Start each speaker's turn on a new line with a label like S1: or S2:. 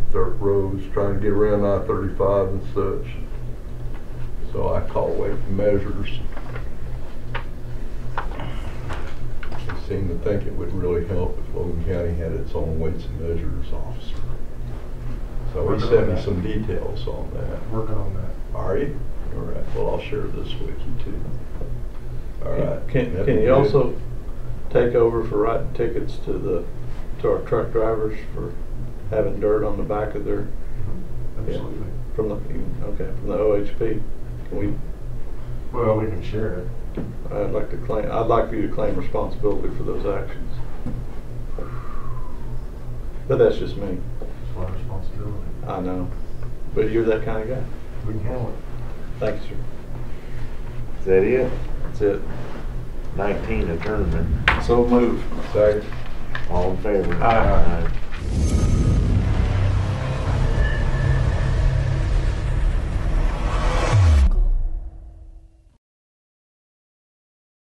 S1: dirt roads, trying to get around I-35 and such. So I call weight and measures. They seem to think it would really help if Logan County had its own weights and measures officer. So
S2: We're
S1: he
S2: doing
S1: sent me
S2: that.
S1: some details on that.
S2: Working on that.
S1: Are you? All right, well, I'll share this with you too. All right.
S3: Can,
S1: that'd
S3: can
S1: be
S3: he
S1: good.
S3: also take over for writing tickets to the, to our truck drivers for having dirt on the back of their,
S2: Absolutely.
S3: from the, okay, from the OHP? Can we,
S2: Well, we can share it.
S3: I'd like to claim, I'd like for you to claim responsibility for those actions. But that's just me,
S2: It's my responsibility.
S3: I know, but you're that kind of guy.
S2: We can handle it.
S3: Thank you, sir.
S4: Is that it?
S3: That's it.
S4: Nineteen, adjournment.
S3: So move.
S1: Second.
S4: All in favor?
S3: Aye.
S4: Aye.